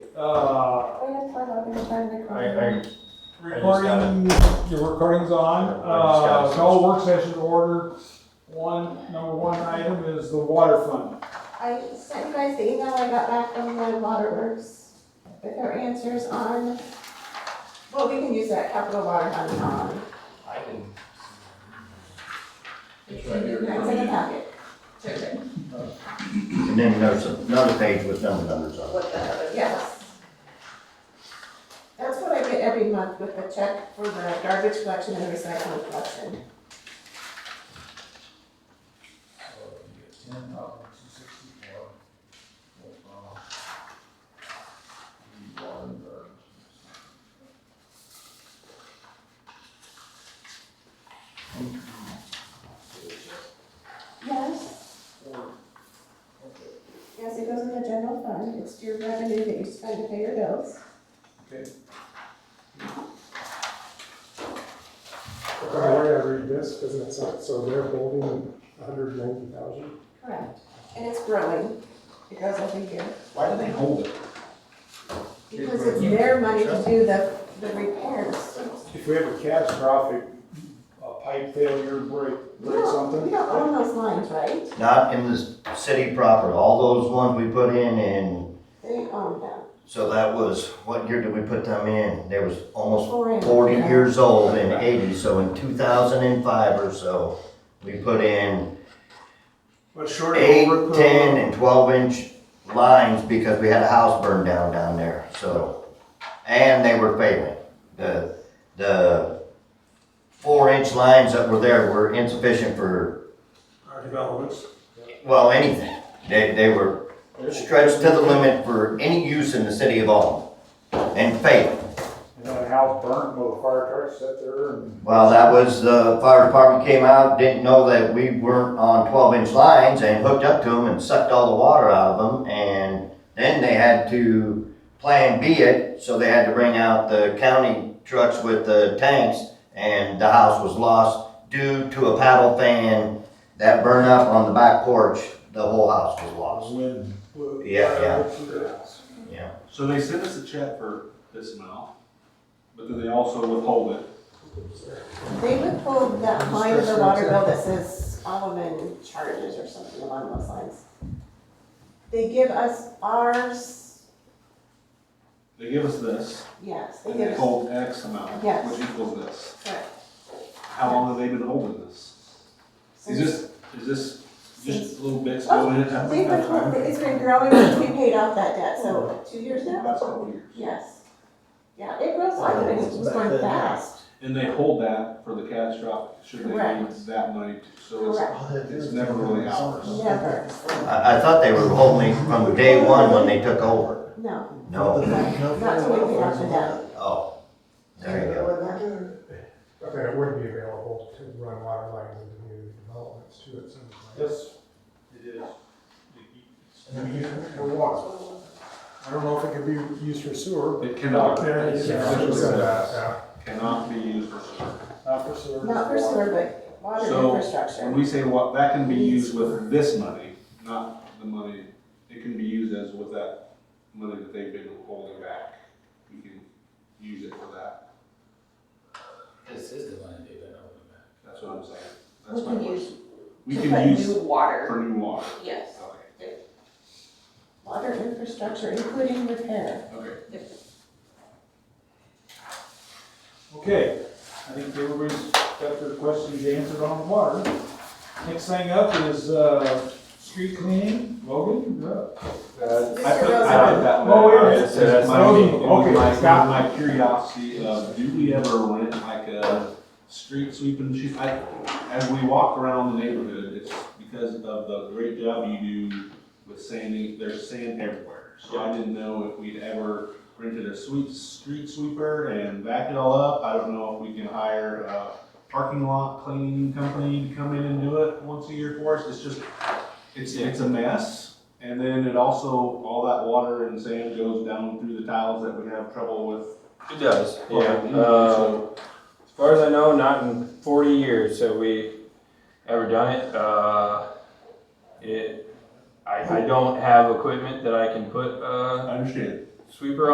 Uh, We have fun, I'm gonna try to record. I, I, got recording, your recording's on, I uh, just got it. no work session order. One, number one item is the water fund. I sent you guys the email I got back from the waterworks with their answers on, well, we can use that capital water fund um, on. I can. It's in the packet. Check it. And then there's another page with number numbers on it. What the hell, Uh, yes. That's what I get every month with the check for the garbage collection and recycling collection. Ten thousand two sixty-four. uh, Yes. Yes, it goes in the general fund, it's your revenue that you spend to pay your bills. The way I read this, doesn't it sound, so they're holding hundred ninety thousand? Correct. And it's growing, it goes every year, Why do they hold it? because it's their money to do the, the repairs. If we have a catastrophic, a pipe failure, break, We break don't- something. We don't own those lines, right? Not in the city proper, all those ones we put in and, They own them. so that was, what year did we put them in? They was almost Four and- forty years old in eighty, so in two thousand and five or so, we put in But short of eight, over- ten, and twelve inch lines because we had a house burned down down there, so. And they were failing. The, the four inch lines that were there were insufficient for Our developments. Well, anything. They, they were stretched to the limit for any use in the city of Alton and failed. And then a house burnt, well, the fire truck sat there and. Well, that was, the fire department came out, didn't know that we weren't on twelve inch lines and hooked up to them and sucked all the water out of them. And then they had to plan B it, so they had to bring out the county trucks with the tanks. And the house was lost due to a paddle fan that burned up on the back porch. The whole house was lost. Wind. Yeah, yeah. So they send us a check for this amount, but then they also withhold it. They withhold that line of the water bill that says Alderman charges or something along those lines. They give us ours, They give us this, yes, they and they give us, hold X amount, Yes. which equals this. correct. How long have they been holding this? Is this, is this Since- just little bits Oh, going in at We've at been, a time? told that it's been growing since we paid off that debt, so two years The now? Last couple of years. Yes. Yeah, it grows, I think it's just going fast. And they hold that for the catastrophic, should they Correct. need that money, to- so it's, Correct, it's never really ours. never, I, I thought they were holding me from day one when they took over. no, No, not till we paid off the debt. oh, there you go. But then it would be available to run water lines in community developments too, it sounds like. Yes, it is. I mean, for water. I don't know if it could be used for sewer. It cannot, Yeah, it's yeah, essentially yeah, this. yeah. cannot be used for sewer. Not for sewer. Not for sewer, but water So, infrastructure. When we say what, that can be used with this money, not the money, it can be used as with that money that they've been holding back. You can use it for that, This is the line they've been holding back. that's what I'm saying. We That's my can question. We To can put use new water, for new water. yes. Okay, Water infrastructure, including repair. okay. Okay, I think everybody's got their questions answered on the water. Next thing up is, uh, street cleaning, Logan, Uh, you're up. Mr. I put, I put Rosen, that one. Oh, yeah. It says my, Okay, it was my- it was got my curiosity of, do we ever rent like a street sweeping, she, I, as we walk around the neighborhood, it's because of the great job you do with sanding, there's sand everywhere. So I didn't know if we'd ever rented a sweep, street sweeper and back it all up. I don't know if we can hire a parking lot cleaning company to come in and do it once a year for us. It's just, it's, it's a mess. And then it also, all that water and sand goes down through the tiles that we have trouble with. It does, yeah. Okay. Um, as far as I know, not in forty years have we ever done it. Uh, it, I, I don't have equipment that I can put a uh, I understand. sweeper